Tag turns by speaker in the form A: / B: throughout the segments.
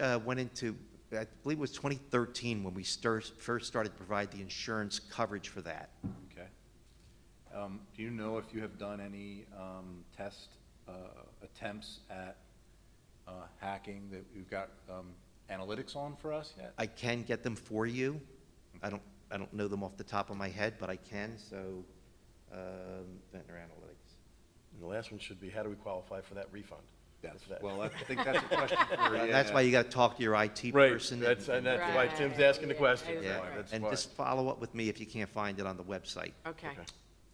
A: uh, went into, I believe it was 2013 when we stir- first started to provide the insurance coverage for that.
B: Okay. Um, Do you know if you have done any um, test uh, attempts at uh, hacking that you've got um, analytics on for us yet?
A: I can get them for you. I don't, I don't know them off the top of my head, but I can, so, um, Ventnor Analytics.
C: And the last one should be, how do we qualify for that refund?
B: That's-
C: That's that.
B: Well, I think that's a question for,
A: Uh,
B: yeah.
A: That's why you gotta talk to your IT
C: Right,
A: person.
C: that's, and that's why
D: Right.
C: Tim's asking the question.
D: that's
A: Yeah,
D: why,
C: That's
A: and
C: why.
A: just follow up with me if you can't find it on the website.
D: Okay.
C: Okay.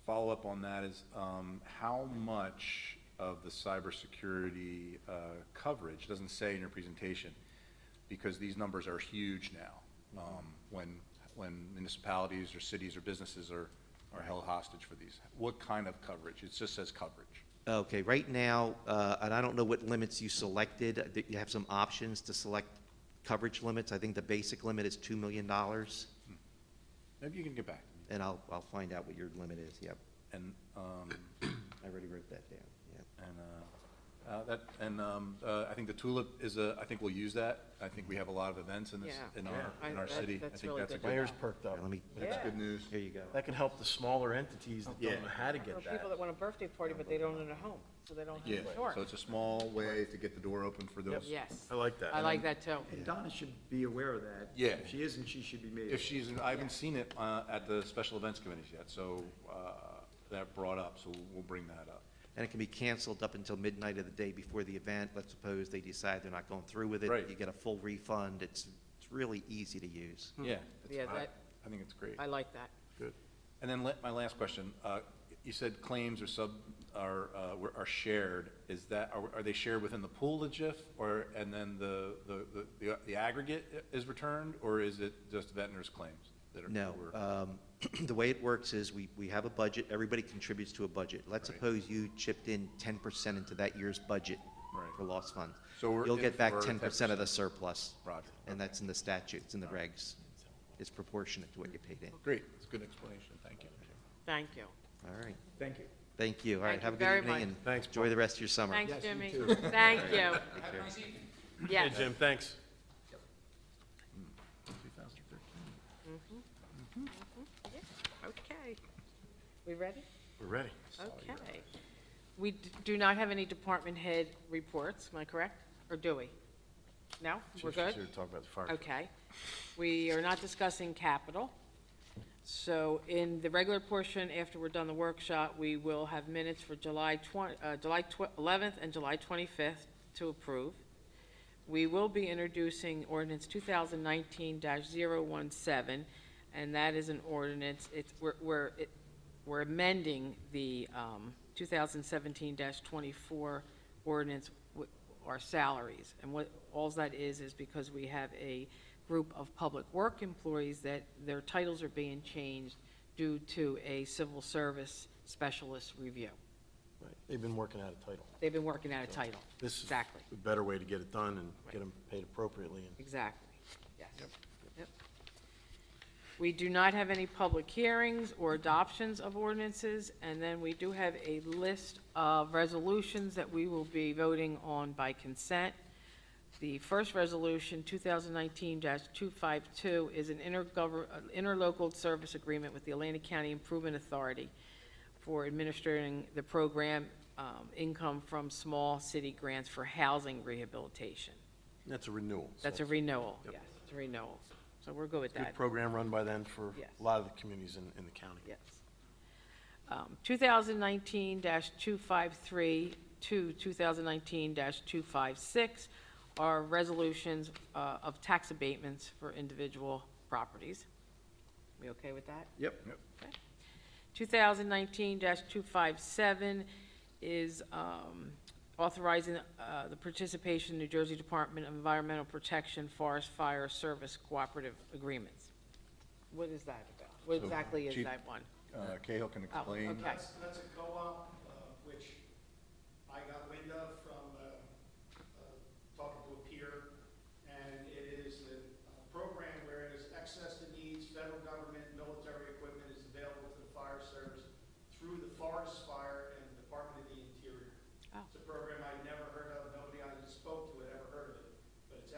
B: Follow up on that is, um, how much of the cybersecurity uh, coverage, doesn't say in your presentation, because these numbers are huge now, um, when, when municipalities or cities or businesses are, are held hostage for these. What kind of coverage? It just says coverage.
A: Okay, right now, uh, and I don't know what limits you selected, uh, that you have some options to select coverage limits. I think the basic limit is $2 million, and
B: Maybe you can get back to me.
A: I'll, I'll find out what your limit is, yep.
B: And, um,
A: I already wrote that down, yep.
B: and, uh, uh, that, and, um, uh, I think the tulip is a, I think we'll use that. I think we have a lot of events in this,
D: Yeah.
B: in our,
D: Yeah.
B: in our
D: I-
B: city.
D: that-
B: I
D: that's
B: think
D: really
B: that's a
D: good.
C: My
B: good,
C: ears perked up.
A: Let me,
B: that's
D: Yeah.
B: good news.
A: here you go.
C: That can help the smaller entities that don't know how to
D: Or
C: get that.
D: people that want a birthday party, but they don't own a home, so they don't
B: Yeah,
D: have
B: so
D: insurance.
B: it's a small way to get the door open for those.
D: Yes.
C: I like that.
D: I like that too.
E: And Donna should be aware of that.
B: Yeah.
E: If she isn't, she should be made.
B: If she's, I haven't seen it, uh, at the special events committees yet, so, uh, that brought up, so we'll bring that up.
A: And it can be canceled up until midnight of the day before the event. Let's suppose they decide they're not going through with it.
B: Right.
A: You get a full refund. It's, it's really easy to use.
B: Yeah.
D: Yeah,
B: I-
D: that-
B: I think it's great.
D: I like that.
B: And then let, my last question, uh, you said claims are sub, are, uh, were- are shared, is that, are, are they shared within the pool of JIF? Or, and then the, the, the- the aggregate is returned, or is it just veterans' claims that are?
A: No,
B: were-
A: um, the way it works is we, we have a budget, everybody contributes to a budget. Let's
B: Right.
A: suppose you chipped in ten percent into that year's budget
B: Right.
A: for lost funds.
B: So we're
A: You'll
B: in
A: get back
B: for
A: ten percent of the surplus.
B: Roger,
A: And that's in the statutes, in the regs. It's proportionate to what you paid in.
B: Great, it's a good explanation, thank you.
D: Thank you.
A: All right,
E: Thank you.
A: thank you. All right,
D: Thank you
A: have a
D: very
A: good
D: much.
A: evening and
C: Thanks,
A: enjoy the rest of your summer.
D: Thanks,
E: you
D: Jimmy.
E: too.
D: Thank
A: Take
D: you.
A: care.
C: Hey,
D: Yes.
C: Jim, thanks.
B: 2013.
D: Okay. We ready?
C: We're ready.
D: Okay. We d- do not have any department head reports, am I correct? Or do we? No? We're
C: She's here
D: good?
C: to talk about the fire.
D: Okay. We are not discussing capital. So in the regular portion, after we're done the workshop, we will have minutes for July 20, uh, July tw- 11th and July 25th to approve. We will be introducing ordinance 2019-017, and that is an ordinance, it's, we're- we're, it- we're amending the um, 2017-24 ordinance, wi- our salaries. And what, all that is, is because we have a group of public work employees that their titles are being changed due to a civil service specialist review.
C: Right. They've been working out a title.
D: They've been working out a title.
C: This is
D: Exactly.
C: a better way to get it done and get them paid appropriately and
D: Exactly, yes. Yep. We do not have any public hearings or adoptions of ordinances, and then we do have a list of resolutions that we will be voting on by consent. The first resolution, 2019-252, is an intergovern, uh, interlocal service agreement with the Atlantic County Improvement Authority for administering the program um, income from small city grants for housing rehabilitation.
C: that's a renewal. so
D: That's a renewal, yes, it's a renewal. So we're good with
C: Good
D: that,
C: program run by them for
D: Yes.
C: a lot of the communities in, in the county.
D: yes. Um, 2019-253 to 2019-256 are resolutions uh, of tax abatements for individual properties. We okay with that?
E: Yep.
D: Okay. 2019-257 is um, authorizing uh, the participation in New Jersey Department of Environmental Protection Forest Fire Service Cooperative Agreements. What is that about? What
B: So,
D: exactly is
B: Chief-
D: that one?
B: Uh, Cahill can
D: Oh,
B: explain.
D: okay.
F: That's, that's a co-op uh, uh,